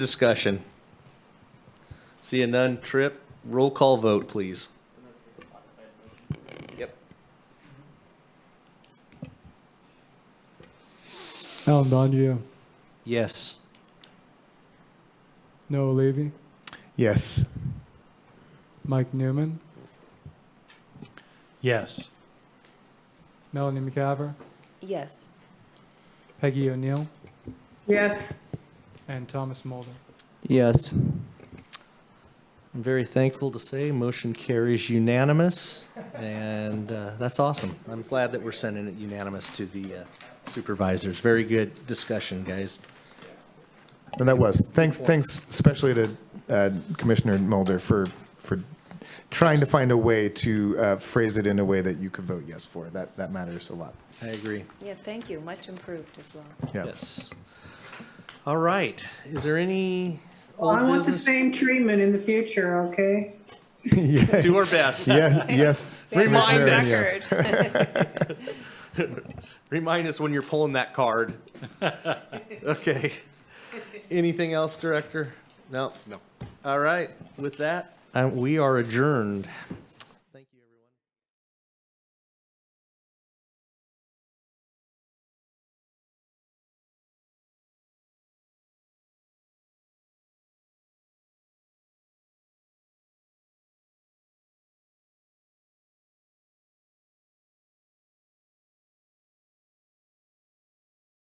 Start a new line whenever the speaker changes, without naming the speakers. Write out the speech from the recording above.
Discussion. See a none, Trip, roll call vote, please. Yep.
Alan Bondio,
Yes.
Noah Levy,
Yes.
Mike Newman,
Yes.
Melanie McCaver,
Yes.
Peggy O'Neill,
Yes.
and Thomas Mulder.
Yes.
I'm very thankful to say motion carries unanimous, and uh, that's awesome. I'm glad that we're sending it unanimous to the uh, supervisors. Very good discussion, guys.
And that was. Thanks, thanks especially to uh, Commissioner Mulder for, for trying to find a way to uh, phrase it in a way that you could vote yes for. That, that matters a lot.
I agree.
Yeah, thank you. Much improved as well.
Yeah.
Yes. All right. Is there any old
I want the
business?
same treatment in the future, okay?
Yeah,
Do our best.
yeah, yes.
Remind
Commissioner,
us.
yeah.
Remind us when you're pulling that card. Okay. Anything else, Director? No? No. All right. With that, uh, we are adjourned.